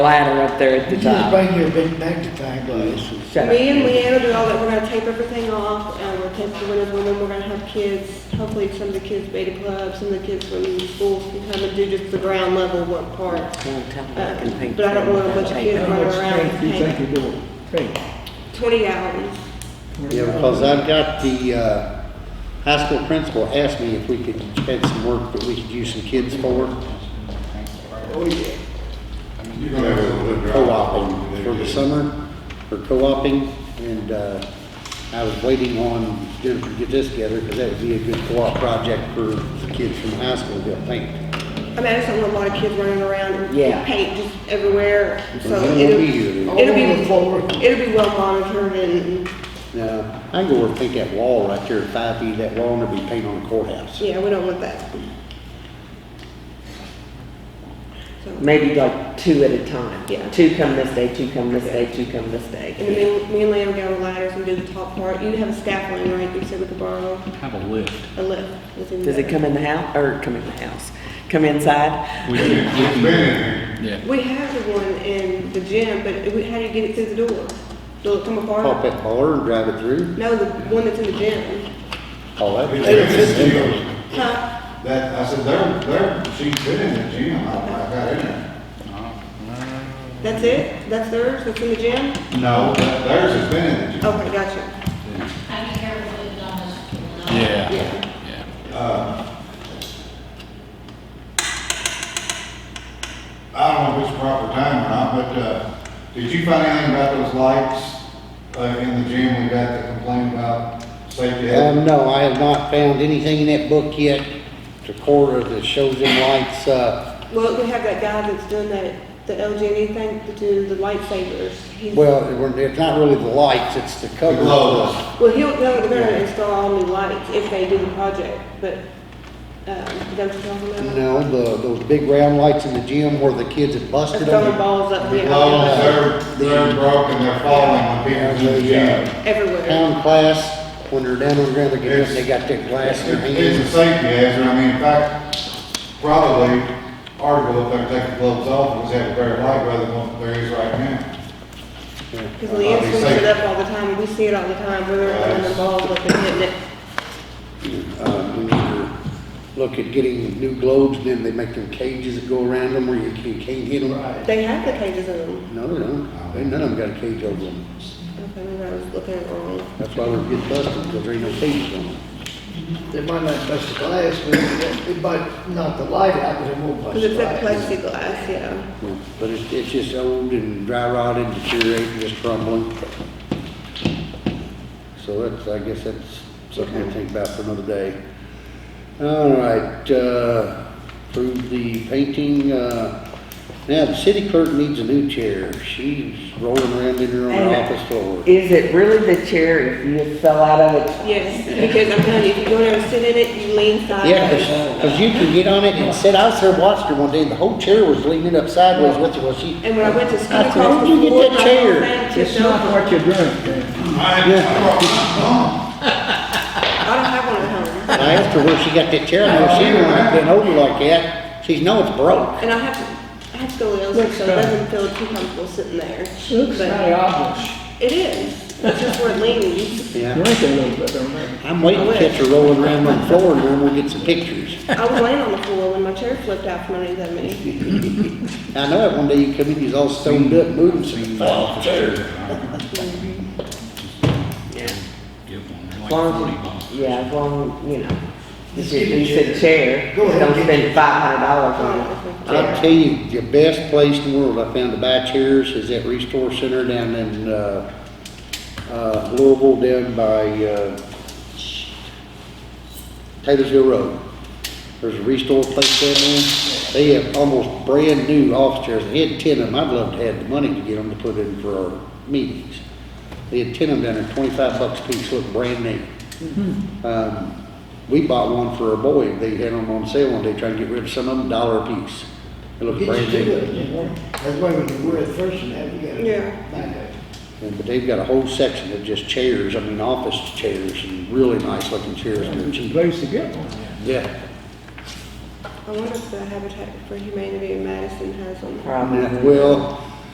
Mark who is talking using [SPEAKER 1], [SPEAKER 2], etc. [SPEAKER 1] ladder up there at the
[SPEAKER 2] You just
[SPEAKER 1] top.
[SPEAKER 2] bring your big magnifying glass. and-
[SPEAKER 1] Shut
[SPEAKER 3] Me
[SPEAKER 1] up.
[SPEAKER 3] and Leanne will do all that, we're gonna tape everything off, and we'll tape the windows, and then we're gonna have kids, hopefully some of the kids beta club, some of the kids from the schools can come and do just the ground level work part. Uh, But I don't want a bunch of kids running around and painting.
[SPEAKER 4] you're doing? Hey,
[SPEAKER 3] Twenty hours.
[SPEAKER 5] Yeah, because I've got the, uh, high school principal asked me if we could, had some work that we could use some kids for,
[SPEAKER 6] You're gonna have a little
[SPEAKER 5] co-oping
[SPEAKER 6] drop-off.
[SPEAKER 5] for the summer, for co-oping, and, uh, I was waiting on Jennifer to get this together, because that would be a good co-op project for the kids from high school to paint.
[SPEAKER 3] I mean, I just don't want a lot of kids running around
[SPEAKER 1] Yeah.
[SPEAKER 3] and paint just everywhere, so
[SPEAKER 5] Well, then we'll
[SPEAKER 3] it'll,
[SPEAKER 5] be here then.
[SPEAKER 3] it'll
[SPEAKER 2] All forward.
[SPEAKER 3] be, it'll be well monitored and,
[SPEAKER 5] Now, I can go over and paint that wall right there, five feet of that wall, and there'll be paint on the courthouse.
[SPEAKER 3] yeah, we don't want that. So-
[SPEAKER 1] Maybe like two at a time.
[SPEAKER 3] Yeah.
[SPEAKER 1] Two come this day, two come this day, two come this day.
[SPEAKER 3] And then me and Leanne will get on the ladders and do the top part. You have a scaffolding, right, you said we could borrow
[SPEAKER 7] Have a lift.
[SPEAKER 3] a lift. that's in
[SPEAKER 1] Does it
[SPEAKER 3] there.
[SPEAKER 1] come in the house, or come in the house, come inside?
[SPEAKER 7] We can,
[SPEAKER 6] It's been in there.
[SPEAKER 7] yeah,
[SPEAKER 3] We have the one in the gym, but it- how do you get it through the door? Does it come
[SPEAKER 5] Pop
[SPEAKER 3] apart?
[SPEAKER 5] that collar and drive it through,
[SPEAKER 3] No, the one that's in the gym.
[SPEAKER 5] all that.
[SPEAKER 6] It's been in the gym.
[SPEAKER 3] Huh?
[SPEAKER 6] That, I said, they're, they're, she's been in the gym, I, I got in there.
[SPEAKER 3] That's it? That's theirs? That's in the gym?
[SPEAKER 6] No, that- theirs has been in the gym.
[SPEAKER 3] Okay, gotcha.
[SPEAKER 8] I can hear what you've done this.
[SPEAKER 7] yeah,
[SPEAKER 3] Yeah.
[SPEAKER 7] yeah.
[SPEAKER 6] Uh, I don't know if it's proper time or not, but, uh, did you find anything about those lights, uh, in the gym we got that complained about safety?
[SPEAKER 5] Um, no, I have not found anything in that book yet, the quarter that shows them lights, uh,
[SPEAKER 3] Well, we have that guy that's doing that, the LGD E thing to do the lightsabers. He's-
[SPEAKER 5] well, it were- it's not really the lights, it's the cover.
[SPEAKER 6] The glows.
[SPEAKER 3] Well, he'll, they're gonna install all new lights if they do the project, but, um, is that what you're talking about?
[SPEAKER 5] No, the, those big round lights in the gym where the kids had busted
[SPEAKER 3] throwing
[SPEAKER 5] them.
[SPEAKER 3] balls up
[SPEAKER 6] The
[SPEAKER 3] here.
[SPEAKER 6] gloves, they're, they're broken, they're falling when people do the gym.
[SPEAKER 3] Everywhere.
[SPEAKER 5] Pound class, when they're down on the ground, they get up, they got that glass in their
[SPEAKER 6] It's a
[SPEAKER 5] hands.
[SPEAKER 6] safety hazard, I mean, in fact, probably article if they take the gloves off, was have a better light rather than what there is right now.
[SPEAKER 3] Because Leanne swings it up all the time, and we see it all the time, we're running the balls up and hitting it.
[SPEAKER 5] Uh, we need to look at getting new globes, then they make them cages that go around them where you can't, can't hit them.
[SPEAKER 3] They have the cages in them.
[SPEAKER 5] No, they don't, Ain't none of them got a cage over them.
[SPEAKER 3] Okay, maybe I was looking at it wrong.
[SPEAKER 5] That's why they're getting busted, because there ain't no cages on them.
[SPEAKER 2] They might not bust the glass, but it it might knock the light out, but it won't bust
[SPEAKER 3] Because
[SPEAKER 2] the
[SPEAKER 3] it's that
[SPEAKER 2] light.
[SPEAKER 3] plexiglass, yeah.
[SPEAKER 5] But it's, it's just old and dry rotted, deteriorating, just crumbling. So that's, I guess that's something to think about for another day. All right, uh, approve the painting, uh, now the city clerk needs a new chair. She's rolling around in her own
[SPEAKER 1] And-
[SPEAKER 5] office floor.
[SPEAKER 1] Is it really the chair if you fell out of it?
[SPEAKER 3] Yes, because I'm telling you, if you don't ever sit in it, you lean
[SPEAKER 5] Yeah,
[SPEAKER 3] sideways.
[SPEAKER 5] cause, 'cause you can get on it and sit, I was there watching her one day, and the whole chair was leaning up sideways with her, well, she.
[SPEAKER 3] And when I went to school
[SPEAKER 5] I said,
[SPEAKER 3] across
[SPEAKER 5] "Where'd you
[SPEAKER 3] the
[SPEAKER 5] get
[SPEAKER 3] floor,
[SPEAKER 5] that
[SPEAKER 3] my
[SPEAKER 5] chair?"
[SPEAKER 3] whole thing
[SPEAKER 4] It's
[SPEAKER 3] tipped
[SPEAKER 4] not
[SPEAKER 3] over.
[SPEAKER 4] what you're doing, Dan.
[SPEAKER 6] I had, I brought mine
[SPEAKER 3] I don't have one at home.
[SPEAKER 5] I asked her where she got that chair, and she ain't been older like that. She's, no, it's broke.
[SPEAKER 3] And I have, I have scoliosis,
[SPEAKER 4] Looks
[SPEAKER 3] so it
[SPEAKER 4] bad.
[SPEAKER 3] doesn't feel too comfortable sitting there.
[SPEAKER 4] Looks
[SPEAKER 3] But
[SPEAKER 4] kind of obvious.
[SPEAKER 3] it is, it's just where it leans.
[SPEAKER 5] Yeah.
[SPEAKER 4] Drink a little bit, don't they?
[SPEAKER 5] I'm waiting to catch her rolling around on the floor, and then we'll get some pictures.
[SPEAKER 3] I was laying on the floor when my chair flipped out from underneath me.
[SPEAKER 5] I know that one day you come in, you're all stoned up, moving some.
[SPEAKER 6] off.
[SPEAKER 7] Give one, they're
[SPEAKER 1] As
[SPEAKER 7] like
[SPEAKER 1] long
[SPEAKER 7] forty
[SPEAKER 1] as
[SPEAKER 7] bucks.
[SPEAKER 1] you- Yeah, as long, you know,
[SPEAKER 2] Just
[SPEAKER 1] if you
[SPEAKER 2] get a
[SPEAKER 1] you said chair,
[SPEAKER 2] Go ahead
[SPEAKER 1] don't
[SPEAKER 2] and get
[SPEAKER 1] spend five hundred dollars
[SPEAKER 3] Oh,
[SPEAKER 1] on it.
[SPEAKER 5] I'll
[SPEAKER 3] But
[SPEAKER 5] tell you, the best place in the world I found to buy chairs is that Restore Center down in, uh, uh, Louisville, down by, uh, Taylorsville Road. There's a Restore place down there. They have almost brand-new office chairs. They had ten of them. I'd love to have the money to get them to put in for our meetings. They had ten of them down there, twenty-five bucks a piece, look brand new. Um, we bought one for our boy, they had them on sale one day, trying to get rid of some of them, dollar a piece. It looked
[SPEAKER 2] Get
[SPEAKER 5] brand
[SPEAKER 2] you to
[SPEAKER 5] new.
[SPEAKER 2] it, you know? That's why when you were at first and that, you gotta.
[SPEAKER 3] Yeah.
[SPEAKER 2] find it.
[SPEAKER 5] And- But they've got a whole section of just chairs, I mean, office chairs, and really nice looking chairs, and they're
[SPEAKER 4] It's a
[SPEAKER 5] cheap.
[SPEAKER 4] place to get one.
[SPEAKER 5] Yeah,
[SPEAKER 3] I wonder if the Habitat for Humanity in Madison has one.
[SPEAKER 5] And,
[SPEAKER 1] Probably.
[SPEAKER 5] well,